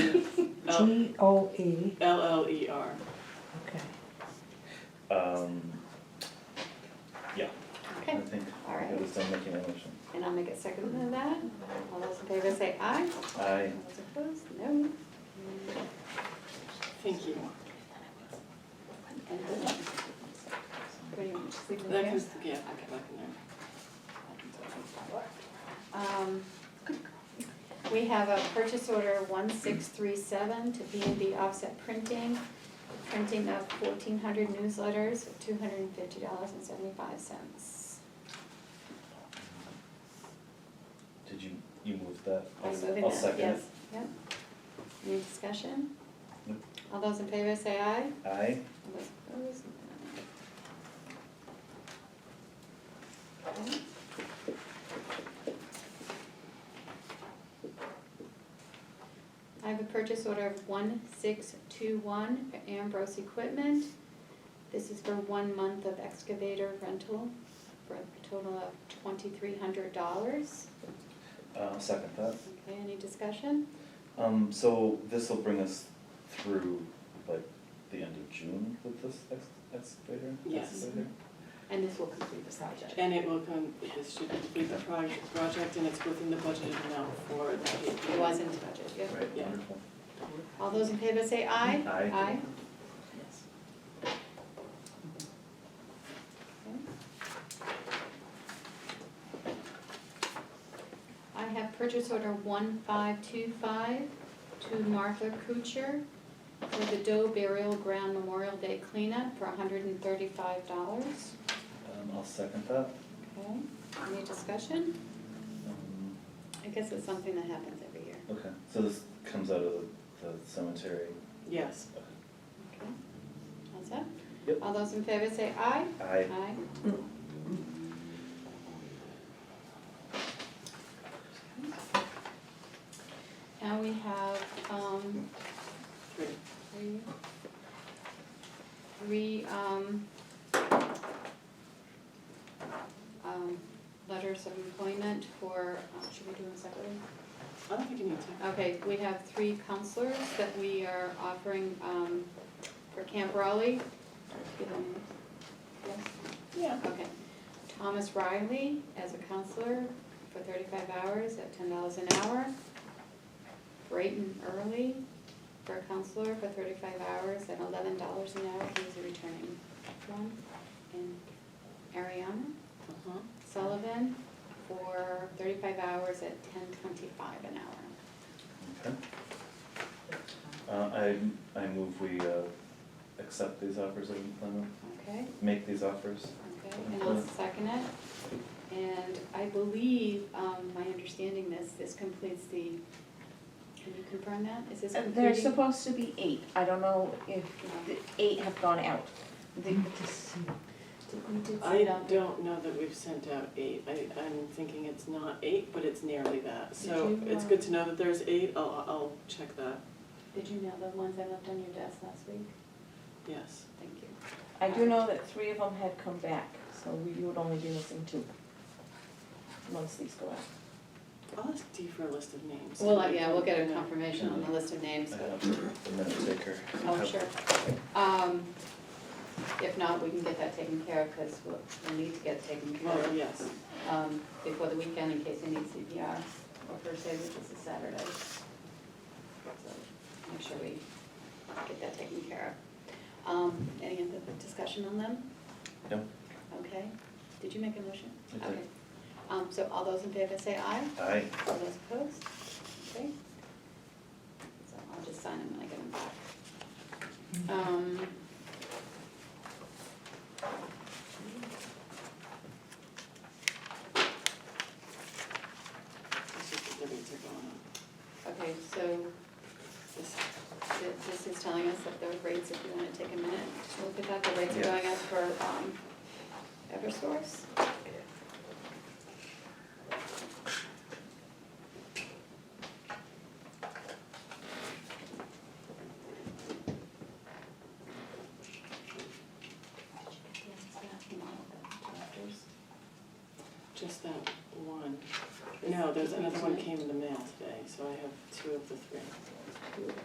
G O E, L L E R. okay. Um, yeah, I Okay, think All right. it was done making a motion. and I'll make it second to that. All those in favor say aye. I, All those opposed, no. Thank you. And this one. Pretty much sleeping That here. was, yeah, I Okay. can look in there. Um, We have a purchase order one six three seven to B and B Offset Printing, printing of fourteen hundred newsletters for two hundred and fifty dollars and seventy-five cents. did you, you moved that? I'm moving I'll that, second yes, it. yep. Any discussion? Nope. All those in favor say aye. I, All those opposed, no. Okay. I have a purchase order of one six two one for Ambrose Equipment. This is for one month of excavator rental for a total of twenty-three hundred dollars. uh, second that. Okay, any discussion? Um, so this'll bring us through like the end of June with this ex- excavator? Yes. excavator? And this will complete the project. And it will come, this should complete the project, project and it's within the budgeted amount for that. It was in the budget, yeah. Right, Yeah. wonderful. All those in favor say aye. Aye. Aye. I have purchase order one five two five to Martha Kuchar for the Doe Burial Ground Memorial Day cleanup for hundred and thirty-five dollars. Um, I'll second that. Okay, any discussion? Um, I guess it's something that happens every year. okay, so this comes out of the the cemetery. Yes. Okay. Okay, that's it? Yep. All those in favor say aye. I, Aye. Now we have, um, Great. three, three, um, um, letters of employment for, uh, should we do them separately? I don't think you need to. Okay, we have three counselors that we are offering, um, for Camp Raleigh. Give them- yes? Yeah. Okay. Thomas Riley as a counselor for thirty-five hours at ten dollars an hour. Brayton Early for a counselor for thirty-five hours at eleven dollars an hour, he's a returning one. And Ariana Uh-huh. Sullivan for thirty-five hours at ten twenty-five an hour. okay. Uh, I, I move we, uh, accept these offers of employment, Okay, make these offers. okay, and I'll second it. And I believe, um, my understanding this, this completes the, can you confirm that? Is this Uh, completing? There's supposed to be eight, I don't know if the eight have gone out. The- We did I send out, did don't know that we've sent out eight. I, I'm thinking it's not eight, but it's nearly that. So Did you, it's uh, good to know that there's eight. I'll, I'll check that. you know the ones I left on your desk last week? Yes. Thank you. I do know that three of them had come back, so we you would only be missing two. Once these go out. I'll ask Dee for a list of names. Well, uh, yeah, we'll get a Yeah. confirmation on the list of names, I but, have the minute taker. oh, sure. Um, if not, we can get that taken care of, because we'll, we'll need to get taken care Well, of, yes. um, before the weekend in case they need CPR, or first aid, which is a Saturday. So, make sure we get that taken care of. Um, any other discussion on them? No, Okay, did you make a motion? I did. Okay. Um, so all those in favor say aye, I, all those opposed, okay? So I'll just sign them when I get them back. Um. It's just that the rates are going up. Okay, so this, this is telling us that the rates, if you wanna take a minute, to look at that, the rates are going up Yes. for, um, Eversource. Just that one. No, there's another one came in the mail today, so I have two of the three.